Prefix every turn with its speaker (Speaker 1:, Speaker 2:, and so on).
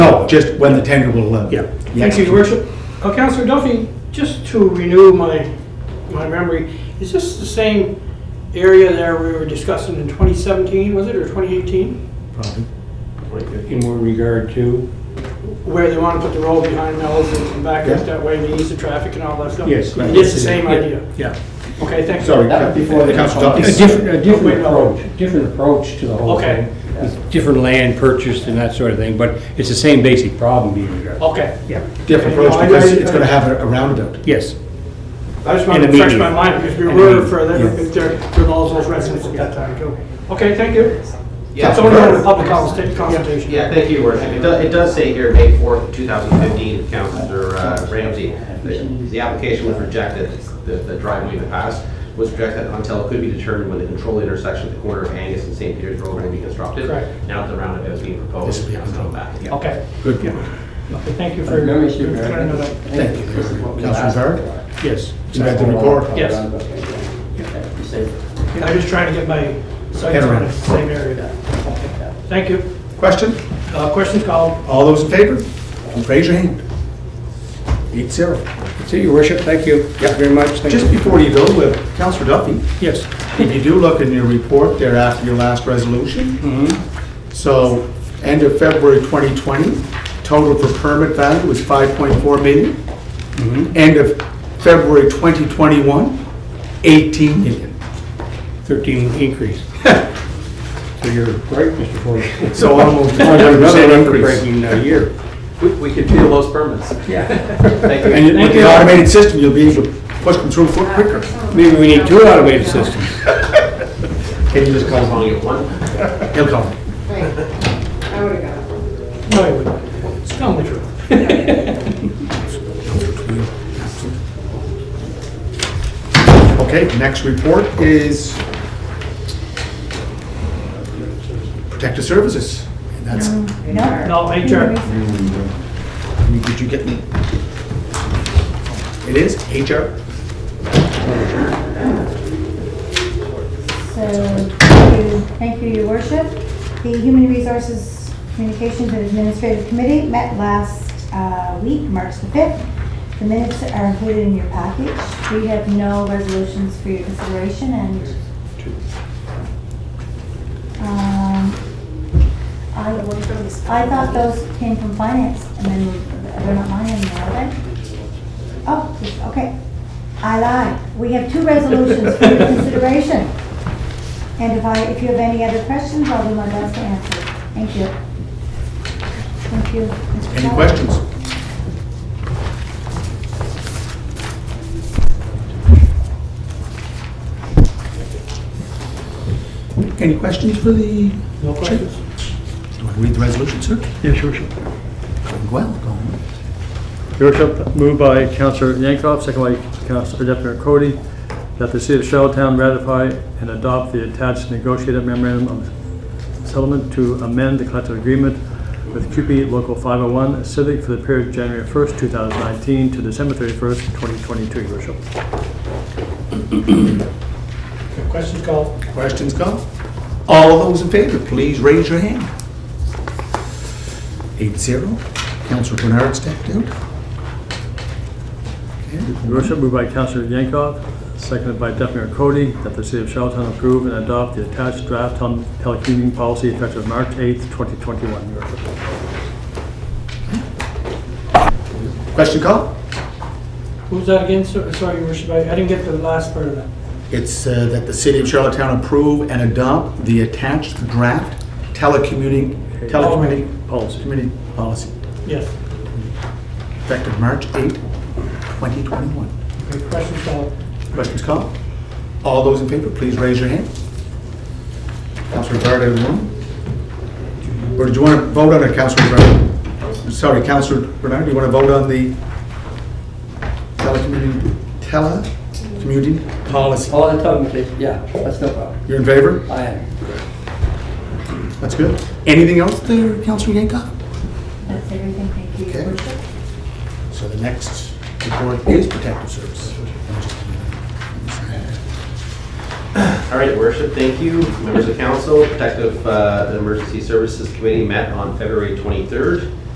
Speaker 1: just when the tender will let.
Speaker 2: Yeah.
Speaker 3: Thank you, Your Worship. Uh, Counselor Duffy, just to renew my, my memory, is this the same area there we were discussing in 2017, was it, or 2018?
Speaker 1: Probably.
Speaker 4: In what regard to?
Speaker 3: Where they want to put the road behind Mel's and back
Speaker 1: Yeah.
Speaker 3: up that way, they ease the traffic and all that stuff?
Speaker 4: Yes, right.
Speaker 3: It's the same idea?
Speaker 1: Yeah.
Speaker 3: Okay, thanks.
Speaker 1: Sorry.
Speaker 5: That was before the-
Speaker 1: Councilor
Speaker 4: A
Speaker 1: Duffy.
Speaker 4: different, a
Speaker 3: Wait,
Speaker 4: different
Speaker 3: no.
Speaker 4: approach, different approach to the whole
Speaker 3: Okay.
Speaker 4: thing. With Different land purchased and that sort of thing, but it's the same basic problem being addressed.
Speaker 3: Okay.
Speaker 4: Yeah,
Speaker 1: Different approach because it's gonna have a a roundabout.
Speaker 4: yes.
Speaker 3: I just wanted to
Speaker 4: And
Speaker 3: refresh my
Speaker 4: immediate.
Speaker 3: mind, because we
Speaker 4: And
Speaker 3: were
Speaker 4: immediate,
Speaker 3: further,
Speaker 1: yeah.
Speaker 3: there, there were all those residents at that time, too. Okay, thank you.
Speaker 6: Yeah.
Speaker 3: So we're going to public consulta- consultation.
Speaker 6: Yeah, thank you, Your Worship. It does, it does say here, May 4th, 2015, Counselor uh, Ramsey, that the application was rejected, the the driveway in the past was rejected until it could be determined when the control intersection at the corner of Angus and St. Peter's Road will be constructed.
Speaker 3: Correct.
Speaker 6: Now that the roundabout is being proposed,
Speaker 1: This will be
Speaker 6: it's come back.
Speaker 3: Okay.
Speaker 1: Good point.
Speaker 3: Okay, Thank you for
Speaker 5: No issue,
Speaker 3: for clearing that up.
Speaker 1: Thank you. Councilor Zarek,
Speaker 4: Yes.
Speaker 1: you read the report?
Speaker 3: Yes. Yeah, I'm just trying to get my sights on the
Speaker 1: around.
Speaker 3: same area. Thank you.
Speaker 1: Question?
Speaker 3: Uh, Questions called?
Speaker 1: All those in favor? Raise your hand. Eight zero.
Speaker 4: So, Your Worship, thank you very much. Thank
Speaker 1: Just
Speaker 4: you.
Speaker 1: before you go, with Councilor Duffy,
Speaker 4: Yes.
Speaker 1: if you do look in your report there after your last resolution,
Speaker 4: Mm-hmm.
Speaker 1: So, end of February 2020, total for permit value was 5.4 million.
Speaker 4: Mm-hmm.
Speaker 1: End of February 2021, 18 million.
Speaker 4: 13 increase. So you're right, Mr. Ford.
Speaker 1: So almost
Speaker 4: Another
Speaker 1: 100% increase.
Speaker 4: record-breaking uh, year.
Speaker 6: We- We can feel those permits.
Speaker 4: Yeah.
Speaker 6: Thank you.
Speaker 1: And with
Speaker 4: you.
Speaker 1: the automated system, you'll be able to push them through foot quicker.
Speaker 4: Maybe we need two automated systems.
Speaker 1: Can you just call
Speaker 6: Calling it one.
Speaker 1: him? He'll call him.
Speaker 7: Right. I would have got it.
Speaker 3: No, you wouldn't. Just Tell me the truth.
Speaker 1: Okay, next report is protective services. And that's,
Speaker 3: No, HR.
Speaker 1: did you get me? It is HR?
Speaker 8: So, thank you- thank you, your worship. The Human Resources Communications and Administrative Committee met last uh, week, March the 5th. The minutes are included in your package. We have no resolutions for your consideration and... Um, I I thought those came from finance, and then they're not mine anymore, are they? Oh, okay. I lied. We have two resolutions for your consideration. And if I, if you have any other questions, I'll do my best to answer. Thank you. Thank you. Mr.
Speaker 1: Any
Speaker 8: Kelly.
Speaker 1: questions? Any questions for the?
Speaker 3: No questions?
Speaker 1: Do I read the resolution, sir?
Speaker 9: Yes, Your Worship.
Speaker 1: Going well, going well.
Speaker 9: Your Worship, moved by Councilor Yankoff, second by Councilor Deputy Mayor Cody, that the city of Charlottetown ratify and adopt the attached negotiated memorandum of settlement to amend the collective agreement with QP Local 501 Civic for the period January 1st, 2019 to December 31st, 2022, Your Worship.
Speaker 3: Questions called?
Speaker 1: Questions come? All those in favor, please raise your hand. Eight zero. Counselor Bernard stepped out. Okay.
Speaker 9: Your Worship, moved by Councilor Yankoff, seconded by Deputy Mayor Cody, that the city of Charlottetown approve and adopt the attached draft on telecommuting policy effective March 8th, 2021, Your Worship.
Speaker 1: Question call?
Speaker 3: Who's that again? So- Sorry, Your Worship, I I didn't get the last part of that.
Speaker 1: It's uh, that the city of Charlottetown approve and adopt the attached draft telecommuting, telecommuting
Speaker 9: Policy.
Speaker 1: community policy
Speaker 3: Yes.
Speaker 1: effective March 8, 2021.
Speaker 3: Okay, Questions called?
Speaker 1: Questions called? All those in favor, please raise your hand. Councilor Bernard, everyone. Or did you want to vote on it, Councilor Bernard? Sorry, Councilor Bernard, do you want to vote on the telecommuting, telecommuting policy?
Speaker 5: All the time, please. yeah, that's no problem.
Speaker 1: You're in favor?
Speaker 5: I am.
Speaker 1: That's good. Anything else there, Councilor Yankoff?
Speaker 8: That's everything. Thank you,
Speaker 1: Okay.
Speaker 8: Your Worship.
Speaker 1: So the next report is protective service.
Speaker 6: All right, Your worship, thank you. Members of council, Protective uh, Emergency Services Committee met on February 23rd.